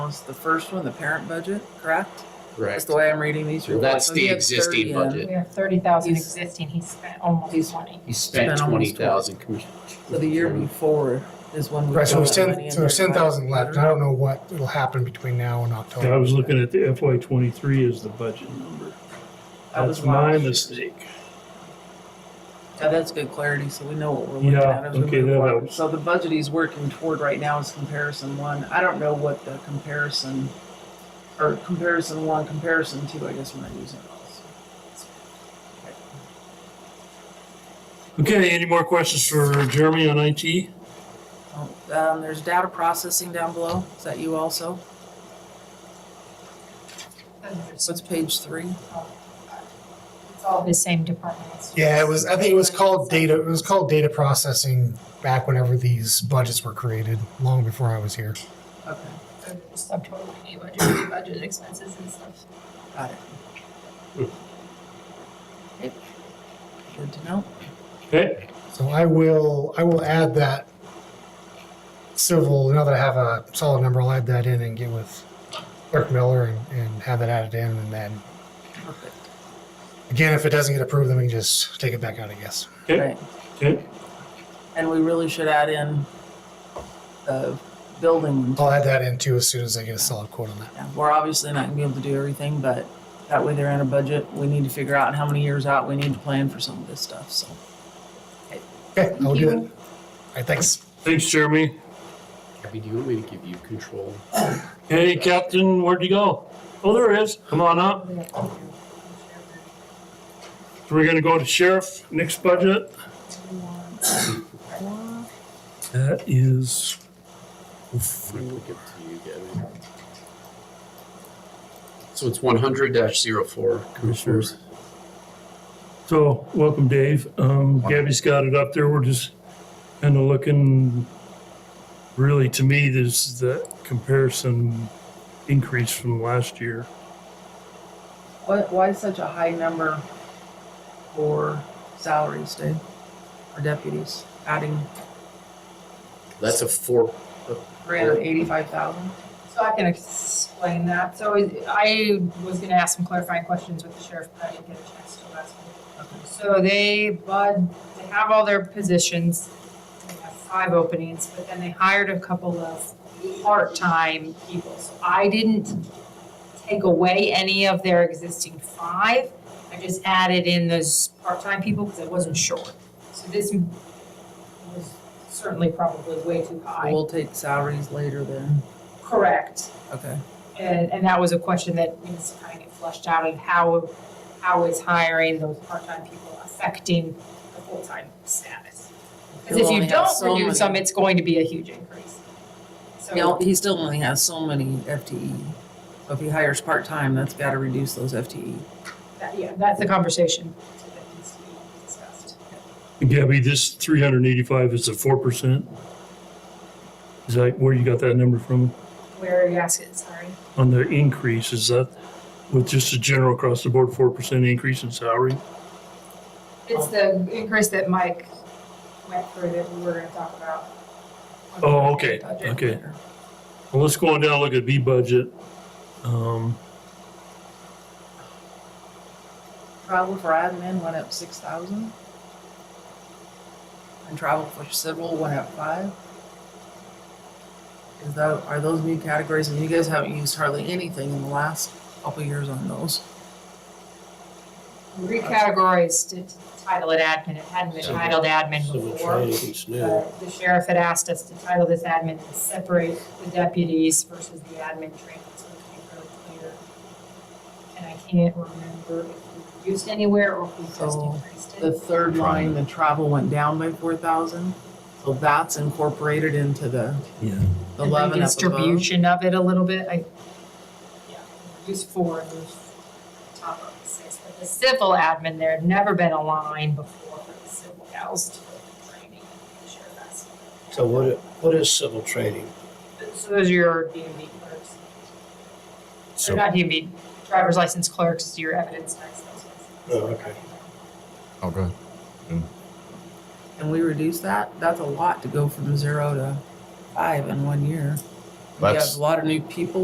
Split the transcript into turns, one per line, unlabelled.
was the first one, the parent budget, correct? That's
Correct.
the way I'm reading these oh,
Well,
reports.
that's
So
the
he had
existing
30,
budget.
We have thirty thousand
He's-
existing, he spent almost
he's-
twenty.
He spent
Spent almost
twenty thousand, Commissioner.
So the year
Mm-hmm.
before is when we.
Right, so
put
there's
the money
ten,
in
so there's
there
ten
back.
thousand left, and I don't know what will happen between now and October.
I was looking at the FY twenty-three as the budget number.
That was
That's my
last year.
mistake.
Yeah, that's good clarity, so we know what we're looking
Yeah,
at as we
okay,
move
that
forward.
helps.
So the budget he's working toward right now is comparison one. I don't know what the comparison, or comparison one, comparison two, I guess we're not using those.
Okay, any more questions for Jeremy on IT?
Oh, Um, there's data processing down below, is that you also? So it's page three?
It's all the same departments.
Yeah, it was, I think it was called data, it was called data processing back whenever these budgets were created, long before I was here.
Okay,
Subtotal, any budget, budget expenses and stuff.
got it.
Hmm.
Yep. Good to know.
Okay,
So I will, I will add that civil, now that I have a solid number, I'll add that in and get with Clerk Miller and, and have that added in, and then,
Perfect.
again, if it doesn't get approved, then we can just take it back out, I guess.
okay,
Right.
okay.
And we really should add in the building
I'll add that in too as soon as I get a solid quote on that.
Yeah, we're obviously not gonna be able to do everything, but that way they're in a budget. We need to figure out how many years out we need to plan for some of this stuff, so.
Okay, I'll do
you.
it. All right, thanks.
Thanks, Jeremy.
Abby, do you want me to give you control?
Hey, Captain, where'd you go? Oh, there it is. Come on up. So we're gonna go to sheriff, next budget. That is,
I'm gonna look up to you again. So it's one hundred dash zero four, Commissioners.
so, welcome, Dave. Um, Gabby's got it up there. We're just kind of looking, really, to me, this is the comparison increase from last year.
What, why such a high number for salaries, Dave, for deputies? Adding
That's a four,
three hundred eighty-five thousand?
So I can explain that. So I- I was gonna ask some clarifying questions with the sheriff, but I didn't get a chance to last week. So they, bud, they have all their positions, they have five openings, but then they hired a couple of part-time people. So I didn't take away any of their existing five. I just added in those part-time people because I wasn't sure. So this was certainly probably way too high.
We'll take salaries later then.
Correct.
Okay,
And, and that was a question that needs to kind of get flushed out of how, how is hiring those part-time people affecting the full-time status? Because if
You'll only
you
have
don't
so
reduce them,
many.
it's going to be a huge increase.
he, al-
So,
he still only has so many FTE. So if he hires part-time, that's gotta reduce those E. FTE.
that- yeah, that's the conversation that needs to be discussed.
Gabby, this three hundred and eighty-five is a four percent? Is that where you got that number from?
Where are you asking, sorry?
On the increase, is that with just a general across the board four percent increase in salary?
It's the increase that Mike went through that we were gonna talk about.
Oh, okay,
Budget.
okay. Well, let's go on down, and look at B budget. Um,
Travel for admin went up six thousand. And travel for civil went up five. Is that, are those new categories, and you guys haven't used hardly anything in the last couple years on those?
Recategorized to title it admin, it hadn't been titled admin before. Uh, The sheriff had asked us to title this admin to separate the deputies versus the admin training, so it became really clear. And I can't remember if we reduced anywhere or if we just
So,
increased
Oh, The
it.
third line, the travel went down by four thousand, so that's incorporated into the
yeah,
the eleven up above.
Distribution of it a little bit, I, yeah, reduced four, and those top of the six, but the civil admin, there had never been a line before for the civil gals to go through training. and the sheriff asked.
So what, i- what is civil training?
So those are your D and B clerks. Or
So,
not DMV, driver's license clerks, your evidence tax. those kinds of things.
Oh, okay.
Oh, good.
And we reduced that, that's a lot to go from zero to five in one year. You have
That's-
a lot of new people